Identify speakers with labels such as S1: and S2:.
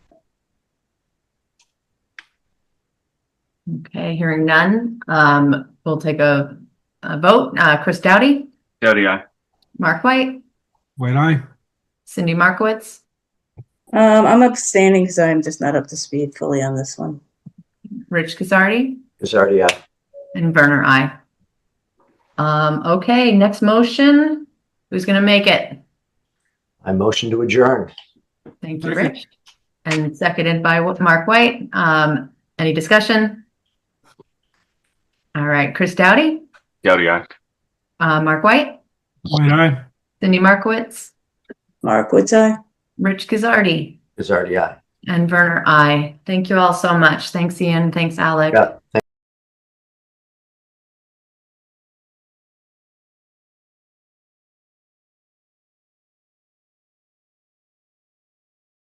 S1: Okay, hearing none, um, we'll take a, a vote. Uh, Chris Doughty,
S2: Dowdy, aye.
S1: Mark White,
S3: White eye,
S1: Cindy Markowitz,
S4: Um, I'm abstaining because I'm just not up to speed fully on this one.
S1: Rich Kuzardi,
S5: Bizarre, aye.
S1: and Werner, I. Um, okay, next motion. Who's gonna make it?
S5: I motion to adjourn.
S1: Thank you,
S3: Second.
S1: Rich. And seconded by Wa- Mark White. Um, any discussion? All right, Chris Doughty,
S2: Dowdy, aye.
S1: uh, Mark White,
S3: white eye.
S1: Cindy Markowitz,
S4: Mark, would I?
S1: Rich Kuzardi,
S5: Bizarre, aye.
S1: and Werner, I. Thank you all so much. Thanks, Ian. Thanks, Alec.
S5: Yeah,